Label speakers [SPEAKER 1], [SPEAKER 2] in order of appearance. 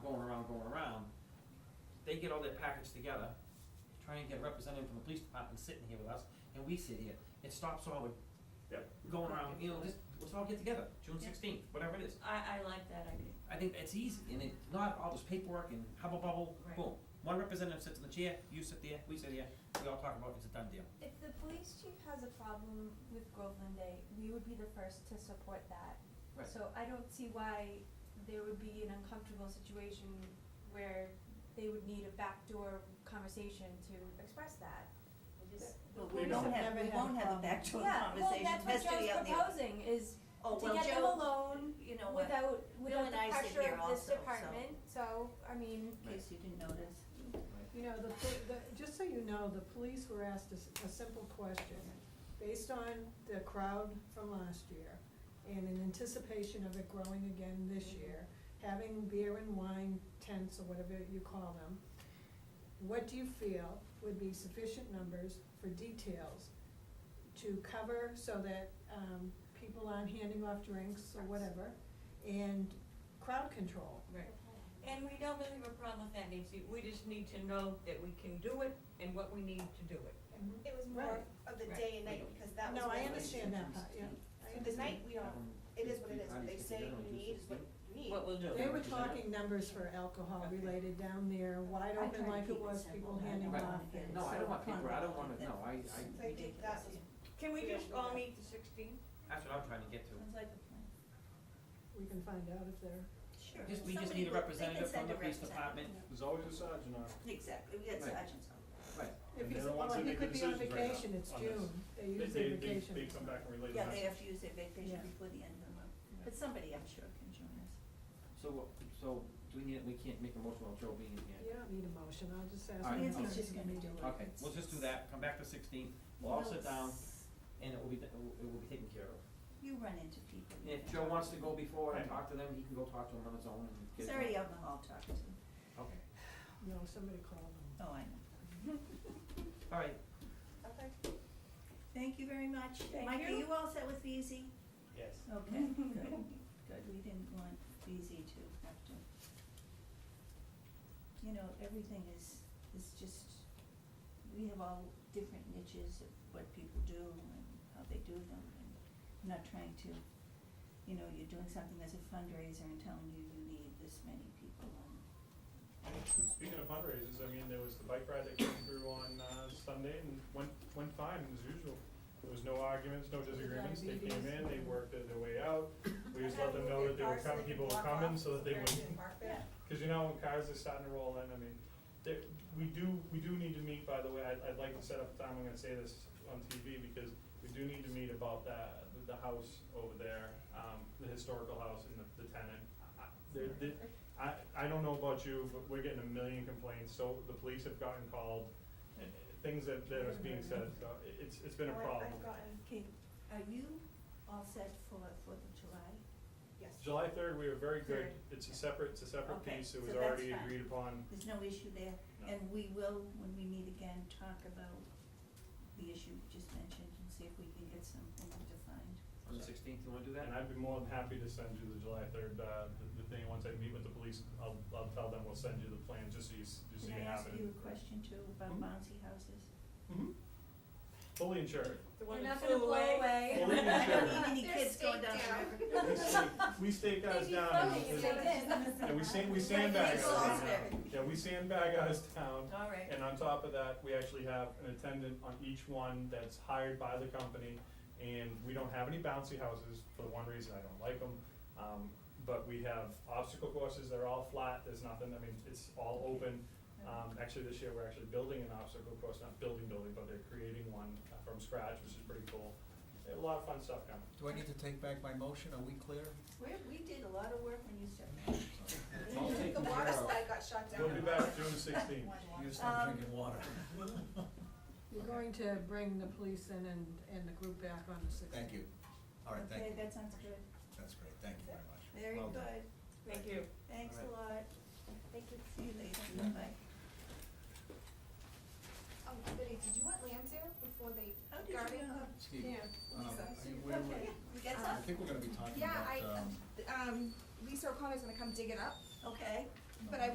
[SPEAKER 1] they get all their package together, try and get a representative from the police department sitting here with us, and we sit here. It stops all the
[SPEAKER 2] Yep.
[SPEAKER 1] going around, you know, just, let's all get together, June
[SPEAKER 3] Yeah.
[SPEAKER 1] sixteenth, whatever it is.
[SPEAKER 3] I, I like that idea.
[SPEAKER 1] I think it's easy, and it, not all this paperwork and hubble bubble,
[SPEAKER 3] Right.
[SPEAKER 1] boom. One representative sits in the chair, you sit there, we sit here, we all talk about it, it's a done deal.
[SPEAKER 4] If the police chief has a problem with Groveland Day, we would be the first to support that.
[SPEAKER 1] Right.
[SPEAKER 4] So I don't see why there would be an uncomfortable situation where they would need a backdoor conversation to express that.
[SPEAKER 5] But
[SPEAKER 2] We
[SPEAKER 5] we
[SPEAKER 2] don't.
[SPEAKER 5] won't have,
[SPEAKER 6] Never
[SPEAKER 5] we
[SPEAKER 6] had a
[SPEAKER 5] won't have a
[SPEAKER 6] problem.
[SPEAKER 5] backdoor
[SPEAKER 4] Yeah, well,
[SPEAKER 5] conversation,
[SPEAKER 4] that's
[SPEAKER 5] it
[SPEAKER 4] what
[SPEAKER 5] has to be out
[SPEAKER 4] Joe's
[SPEAKER 5] there.
[SPEAKER 4] proposing is
[SPEAKER 5] Oh,
[SPEAKER 4] to
[SPEAKER 5] well,
[SPEAKER 4] get them
[SPEAKER 5] Joe-
[SPEAKER 4] alone
[SPEAKER 5] You know what, in
[SPEAKER 4] without,
[SPEAKER 5] Bill
[SPEAKER 4] without
[SPEAKER 5] and
[SPEAKER 4] the
[SPEAKER 5] I sit
[SPEAKER 4] pressure
[SPEAKER 5] here
[SPEAKER 4] of this
[SPEAKER 5] also, so-
[SPEAKER 4] department, so, I mean,
[SPEAKER 5] case you didn't notice.
[SPEAKER 6] You know, the, pol- the, just so you know, the police were asked a, s- a simple question, based on the crowd from last year, and in anticipation of it growing again this year, having beer and wine tents or whatever you call them, what do you feel would be sufficient numbers for details to cover so that, um, people aren't handing off drinks or whatever, and crowd control?
[SPEAKER 5] Right.
[SPEAKER 3] And we don't really have a problem with that, Nancy, we just need to know that we can do it and what we need to do it.
[SPEAKER 6] Mhm.
[SPEAKER 7] It was more
[SPEAKER 6] Right.
[SPEAKER 7] of the
[SPEAKER 3] Right.
[SPEAKER 7] day and night, because that was.
[SPEAKER 6] No, I
[SPEAKER 7] when-
[SPEAKER 6] understand that part, yeah. I
[SPEAKER 7] So the night, we don't, it is what it is,
[SPEAKER 1] Everyone-
[SPEAKER 7] what they say
[SPEAKER 1] everyone gets
[SPEAKER 7] you need is what
[SPEAKER 1] Um, together
[SPEAKER 7] you need.
[SPEAKER 3] What we'll do.
[SPEAKER 6] They were
[SPEAKER 1] Yeah.
[SPEAKER 6] talking numbers for alcohol related down there, wide
[SPEAKER 5] I try
[SPEAKER 6] open
[SPEAKER 5] to
[SPEAKER 6] like
[SPEAKER 5] keep
[SPEAKER 6] it
[SPEAKER 5] it
[SPEAKER 6] was,
[SPEAKER 5] simple.
[SPEAKER 6] people
[SPEAKER 5] I
[SPEAKER 6] handing
[SPEAKER 5] don't
[SPEAKER 1] Right.
[SPEAKER 6] off.
[SPEAKER 5] want it.
[SPEAKER 6] and
[SPEAKER 1] No, I
[SPEAKER 6] so
[SPEAKER 1] don't want paper, I don't wanna,
[SPEAKER 5] That's
[SPEAKER 1] no, I, I,
[SPEAKER 7] So I think that was,
[SPEAKER 3] Can we just all meet the sixteenth?
[SPEAKER 1] that's what I'm trying to get to.
[SPEAKER 5] Sounds like a plan.
[SPEAKER 6] We can find out if they're,
[SPEAKER 5] Sure.
[SPEAKER 1] Just, we just
[SPEAKER 7] Somebody
[SPEAKER 1] need a
[SPEAKER 7] would- they can
[SPEAKER 1] representative from
[SPEAKER 7] send
[SPEAKER 1] the
[SPEAKER 7] a
[SPEAKER 1] police department,
[SPEAKER 2] There's always a sergeant on.
[SPEAKER 5] Exactly, we got
[SPEAKER 1] Right.
[SPEAKER 5] sergeants on.
[SPEAKER 1] right,
[SPEAKER 2] And
[SPEAKER 6] if
[SPEAKER 2] they're
[SPEAKER 6] he's,
[SPEAKER 2] the ones
[SPEAKER 6] well,
[SPEAKER 2] that
[SPEAKER 6] he
[SPEAKER 2] make the
[SPEAKER 6] could be on
[SPEAKER 2] decisions right now
[SPEAKER 6] vacation, it's
[SPEAKER 2] on
[SPEAKER 6] June, they
[SPEAKER 2] They,
[SPEAKER 6] use
[SPEAKER 2] they,
[SPEAKER 6] their
[SPEAKER 2] they,
[SPEAKER 6] vacation.
[SPEAKER 2] they come back and relay
[SPEAKER 5] Yeah,
[SPEAKER 2] the
[SPEAKER 5] they
[SPEAKER 2] message.
[SPEAKER 5] have to use their vacation
[SPEAKER 6] Yeah.
[SPEAKER 5] before the end of the month, but somebody I'm sure can join us.
[SPEAKER 1] so, what- so, do we need, we can't make a motion while Joe being here?
[SPEAKER 6] You don't need a motion, I'll just ask.
[SPEAKER 1] All right,
[SPEAKER 6] them
[SPEAKER 1] Nancy's
[SPEAKER 6] to-
[SPEAKER 5] just gonna do it.
[SPEAKER 1] Okay, we'll just do that, come back to sixteen, we'll all sit down, and it will be, it will it will be taken care of.
[SPEAKER 5] You run into people. you
[SPEAKER 1] And if
[SPEAKER 5] know.
[SPEAKER 1] Joe wants to go before and talk to them, he can go talk to them on his own and get it
[SPEAKER 5] He's
[SPEAKER 1] done.
[SPEAKER 5] already out in the hall talking to them.
[SPEAKER 1] Okay,
[SPEAKER 6] No, somebody called them.
[SPEAKER 5] Oh, I know.
[SPEAKER 1] all right,
[SPEAKER 7] Okay.
[SPEAKER 5] Thank you very much.
[SPEAKER 3] Thank
[SPEAKER 5] Mike, are
[SPEAKER 3] you.
[SPEAKER 5] you all set with VZ?
[SPEAKER 2] Yes.
[SPEAKER 5] Okay, good, good, we didn't want VZ to have to. You know, everything is, is just, we have all different niches of what people do and how they do them, and I'm not trying to, you know, you're doing something as a fundraiser and telling you you need this many people, and
[SPEAKER 2] Speaking of fundraisers, I mean, there was the bike ride that came through on, uh, Sunday and went, went fine as usual. There was no arguments, no disagreements, they came in, they worked their way out, we just let them know that they were coming, people were coming, so that they wouldn't.
[SPEAKER 5] Yeah.
[SPEAKER 2] Cause you know, when cars are starting to roll in, I mean, there, we do, we do need to meet, by the way, I'd, I'd like to set up a time, I'm gonna say this on TV, because we do need to meet about that, the, the house over there, um, the historical house and the, the tenant. I- I- There, there, I, I don't know about you, but we're getting a million complaints, so the police have gotten called, and, and things that, that are being said, so it- it's, it's been a
[SPEAKER 7] Or
[SPEAKER 2] problem.
[SPEAKER 7] I've gotten,
[SPEAKER 5] Okay, are you all set for Fourth of July?
[SPEAKER 7] yes.
[SPEAKER 2] July third, we were very good,
[SPEAKER 5] Third.
[SPEAKER 2] it's a separate, it's a separate
[SPEAKER 5] Okay,
[SPEAKER 2] piece, it
[SPEAKER 5] so
[SPEAKER 2] was
[SPEAKER 5] that's
[SPEAKER 2] already
[SPEAKER 5] fine.
[SPEAKER 2] agreed upon.
[SPEAKER 5] There's no issue there,
[SPEAKER 2] No.
[SPEAKER 5] and we will, when we meet again, talk about the issue you just mentioned and see if we can get something defined.
[SPEAKER 1] on the sixteenth, you wanna do that?
[SPEAKER 2] And I'd be more than happy to send you the July third, uh, the, the thing, once I meet with the police, I'll, I'll tell them we'll send you the plan, just so you, s- just so
[SPEAKER 5] Can
[SPEAKER 2] you
[SPEAKER 5] I
[SPEAKER 2] have
[SPEAKER 5] ask
[SPEAKER 2] it.
[SPEAKER 5] you a question too about
[SPEAKER 2] Mhm.
[SPEAKER 5] bouncy houses?
[SPEAKER 2] Mhm. Fully insured.
[SPEAKER 3] The
[SPEAKER 4] we're
[SPEAKER 3] one that
[SPEAKER 4] not gonna
[SPEAKER 3] flew
[SPEAKER 4] blow
[SPEAKER 3] away?
[SPEAKER 4] away.
[SPEAKER 2] Well, they
[SPEAKER 5] I don't need any
[SPEAKER 7] They're
[SPEAKER 5] kids going
[SPEAKER 7] staked
[SPEAKER 5] down the
[SPEAKER 7] out.
[SPEAKER 5] river.
[SPEAKER 2] Yeah, we stake, we stake ours
[SPEAKER 4] Maybe
[SPEAKER 2] down, and
[SPEAKER 4] floating
[SPEAKER 2] it's-
[SPEAKER 4] is what it
[SPEAKER 2] yeah, we sand, we sandbag
[SPEAKER 5] It's
[SPEAKER 2] ours
[SPEAKER 5] all
[SPEAKER 2] down, yeah, we sandbag ours down,
[SPEAKER 5] All right,
[SPEAKER 2] and on top of that, we actually have an attendant on each one that's hired by the company, and we don't have any bouncy houses, for the one reason I don't like them. Um, but we have obstacle courses, they're all flat, there's nothing, I mean, it's all open, Um, actually, this year, we're actually building an obstacle course, not building, building, but they're creating one uh, from scratch, which is pretty cool. They have A lot of fun stuff coming.
[SPEAKER 8] Do I need to take back my motion? Are we clear?
[SPEAKER 5] we, we did a lot of work when you started.
[SPEAKER 1] It's all taken
[SPEAKER 7] The
[SPEAKER 1] care
[SPEAKER 7] water
[SPEAKER 1] of.
[SPEAKER 7] slide got shut down.
[SPEAKER 2] We'll be back June sixteenth.
[SPEAKER 8] You just not
[SPEAKER 5] Um,
[SPEAKER 8] drinking water.
[SPEAKER 6] You're going to bring the police in and, and the group back on the sixth.
[SPEAKER 8] Thank you. All right, thank
[SPEAKER 5] Okay,
[SPEAKER 8] you.
[SPEAKER 5] that sounds good,
[SPEAKER 8] That's great. Thank you very much.
[SPEAKER 5] very
[SPEAKER 8] Well done.
[SPEAKER 5] good,
[SPEAKER 3] Thank you.
[SPEAKER 5] thanks a
[SPEAKER 1] All
[SPEAKER 5] lot,
[SPEAKER 7] Thank you.
[SPEAKER 5] see you later,
[SPEAKER 8] Yeah.
[SPEAKER 5] bye.
[SPEAKER 7] Um, Betty, did you want Lancer before they
[SPEAKER 5] How did you
[SPEAKER 7] Guardian
[SPEAKER 5] know?
[SPEAKER 7] Club?
[SPEAKER 8] Steve, um,
[SPEAKER 7] Lisa.
[SPEAKER 8] I think we were-
[SPEAKER 5] We got
[SPEAKER 8] I
[SPEAKER 5] some,
[SPEAKER 8] think we're gonna be talking
[SPEAKER 7] Yeah,
[SPEAKER 8] about,
[SPEAKER 7] I,
[SPEAKER 8] um,
[SPEAKER 7] um, Lisa O'Connor's gonna come dig it up,
[SPEAKER 5] okay.
[SPEAKER 7] but I